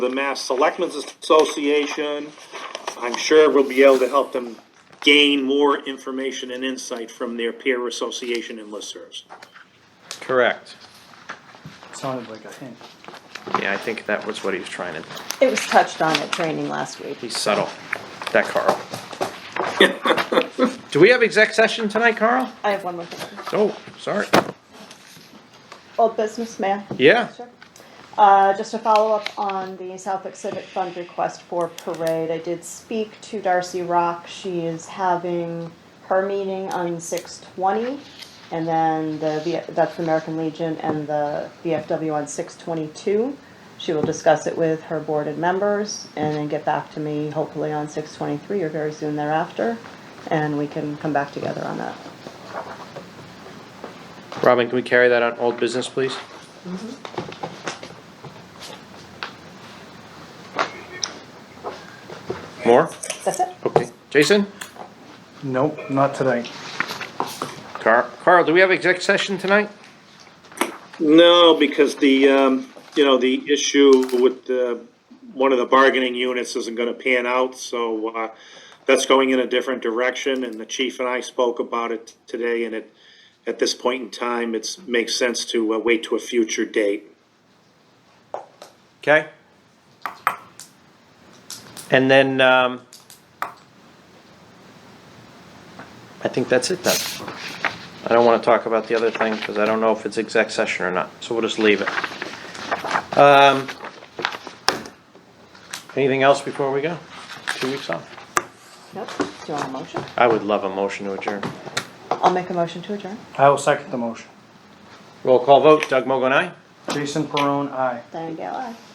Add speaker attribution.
Speaker 1: the Mass Selectmen's Association. I'm sure we'll be able to help them gain more information and insight from their peer association and listservs.
Speaker 2: Correct.
Speaker 3: Sounded like a hint.
Speaker 2: Yeah, I think that was what he was trying to,
Speaker 4: It was touched on at training last week.
Speaker 2: he's subtle, that Carl. Do we have exec session tonight, Carl?
Speaker 4: I have one more thing.
Speaker 2: Oh, sorry.
Speaker 4: Old business, man.
Speaker 2: Yeah,
Speaker 4: Uh, just to follow up on the Southwick Civic Fund request for parade, I did speak to Darcy Rock. She is having her meeting on six twenty, and then the V- that's the American Legion and the VFW on six twenty-two. She will discuss it with her board and members, and then get back to me hopefully on six twenty-three or very soon thereafter, and we can come back together on that.
Speaker 2: Robin, can we carry that on old business, please? More?
Speaker 4: That's it.
Speaker 2: Okay, Jason?
Speaker 3: Nope, not today.
Speaker 2: Carl, Carl, do we have exec session tonight?
Speaker 1: No, because the, um, you know, the issue with the, one of the bargaining units isn't gonna pan out, so, uh, that's going in a different direction, and the chief and I spoke about it today, and it, at this point in time, it's, makes sense to uh, wait to a future date.
Speaker 2: Okay. And then, um, I think that's it then. I don't wanna talk about the other thing, cause I don't know if it's exec session or not, so we'll just leave it. Um, anything else before we go? Two weeks off?
Speaker 4: Nope. Do you want a motion?
Speaker 2: I would love a motion to adjourn.
Speaker 4: I'll make a motion to adjourn.
Speaker 3: I will second the motion.
Speaker 2: Roll call vote, Doug Mogul, aye?
Speaker 3: Jason Perone, aye.
Speaker 4: Diane Gale, aye.